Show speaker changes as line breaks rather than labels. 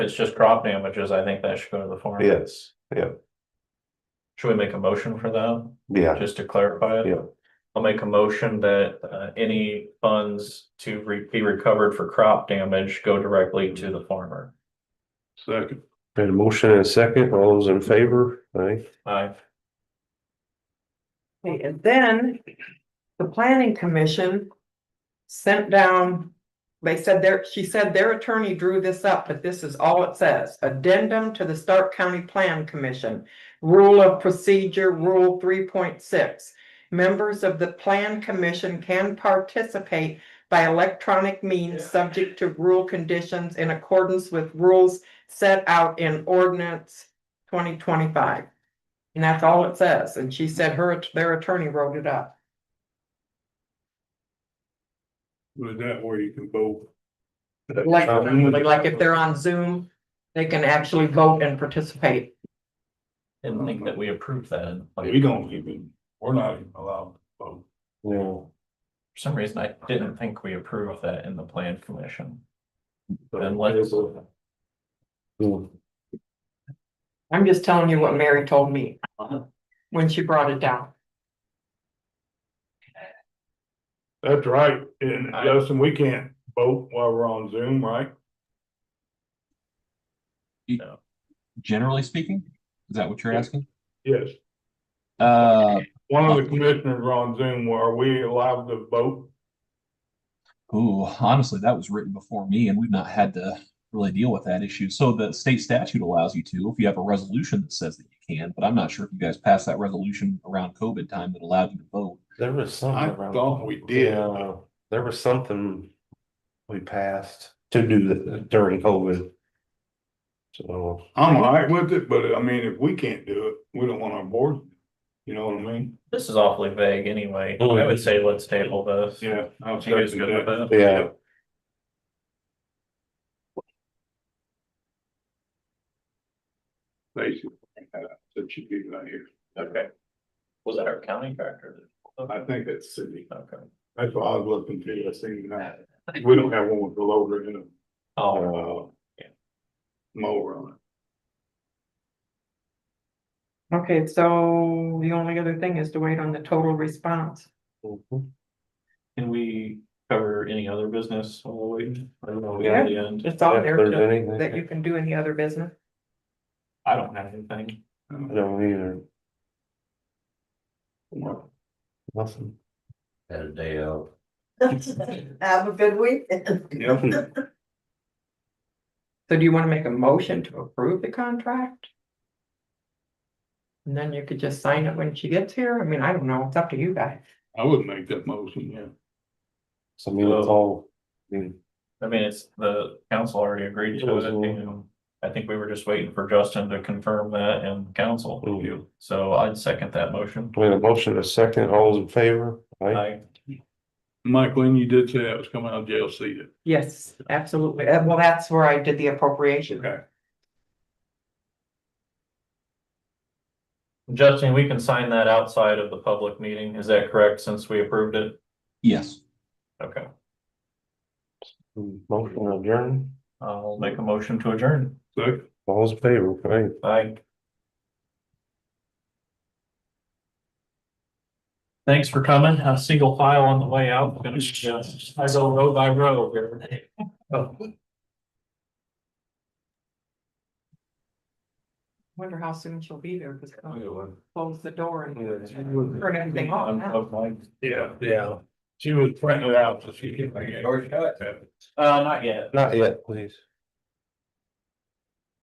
it's just crop damages, I think that should go to the farm.
Yes,
Should we make a motion for that,
yeah,
just to clarify it?
Yeah.
I'll make a motion that uh any funds to re- be recovered for crop damage go directly to the farmer.
Second.
had a motion and a second, all those in favor, aye,
I,
Okay, And then the planning commission sent down, they said their, she said their attorney drew this up, but this is all it says. Addendum to the Stark County Plan Commission, Rule of Procedure, Rule three point six. Members of the Plan Commission can participate by electronic means, subject to rule conditions in accordance with rules set out in ordinance twenty twenty-five. And that's all it says, and she said her, their attorney wrote it up.
With that way you can vote.
Like, like if they're on Zoom, they can actually vote and participate.
didn't think that we approved that. Like,
We
for
don't even, we're not even allowed to vote.
yeah.
some reason, I didn't think we approved that in the plan commission. Then let's-
Hmm.
I'm just telling you what Mary told me when she brought it down.
That's right, and
I-
Justin, we can't vote while we're on Zoom, right?
generally speaking? Is that what you're asking?
Yes,
Uh,
one of the commissioners are on Zoom, are we allowed to vote?
ooh, honestly, that was written before me and we've not had to really deal with that issue. So the state statute allows you to, if you have a resolution that says that you can, but I'm not sure if you guys passed that resolution around COVID time that allowed you to vote.
There was something.
I
around-
thought we did.
Yeah, There was something we passed to do that during COVID. So,
I'm all right with it, but I mean, if we can't do it, we don't want our board, you know what I mean?
This is awfully vague anyway. I would say let's table this.
Yeah. I was
You guys good with that?
yeah,
Basically, uh, that should be right here.
Okay. Was that our county director?
I think that's city.
Okay.
That's what I was looking for, I seen that. We don't have one with the loader in it.
Oh,
Uh,
Yeah.
Mower on
Okay, so the only other thing is to wait on the total response.
Mhm.
can we cover any other business while we, I don't know, we got the end?
It's all
if there's
Oh, there
anything,
that you
I
can do any other business.
I don't have anything.
it.
don't either, nothing.
Had a day out.
Have a good week.
Yeah.
So do you want to make a motion to approve the contract? And then you could just sign it when she gets here. I mean, I don't know. It's up to you guys.
I would make that motion, yeah.
So I mean, it's all, I mean,
I mean, it's, the council already agreed to it, you know. I think we were just waiting for Justin to confirm that and council.
Mhm.
So I'd second that motion.
we had a motion and a second, all those in favor, aye?
I,
Mike Lynn, you did say that was coming out of jail seated.
Yes, absolutely. Uh, Well, that's where I did the appropriation.
Okay.
Justin, we can sign that outside of the public meeting, is that correct, since we approved it?
Yes.
Okay,
Motion adjourned,
I'll make a motion to adjourn.
Second.
all those in favor, aye?
Aye. Thanks for coming. A single file on the way out. We're gonna, uh, I go row by row here.
Oh.
Wonder how soon she'll be there because close the door and turn everything off.
I'm-
now.
I'm like,
Yeah, yeah. She was printing it out, so she.
Or shut.
Uh, not yet.
Not yet, please.